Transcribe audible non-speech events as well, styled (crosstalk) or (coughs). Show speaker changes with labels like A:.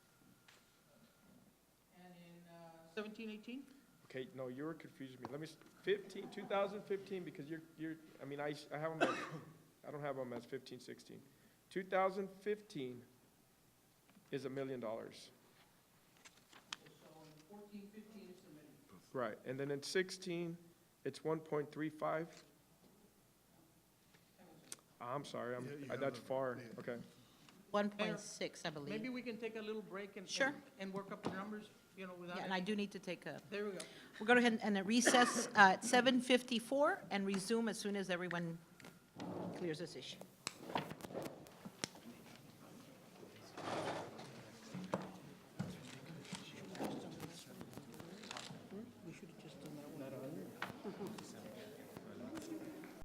A: 17, 18?
B: Okay, no, you were confusing me. Let me, s- 15, 2015, because you're, you're, I mean, I, s- I have them, as- (coughs) I don't have them as 15, 16. 2015 is a million dollars. So in 14, 15, it's a million. Right, and then in 16, it's 1.35? I'm sorry, I'm, I- that's far, okay.
C: 1.6, I believe.
A: Maybe we can take a little break and.
C: Sure.
A: and- And work up the numbers, you know, without.
C: Yeah, And I do need to take a,
A: There we go.
C: we'll go ahead and recess uh, at 7:54 and resume as soon as everyone clears this issue.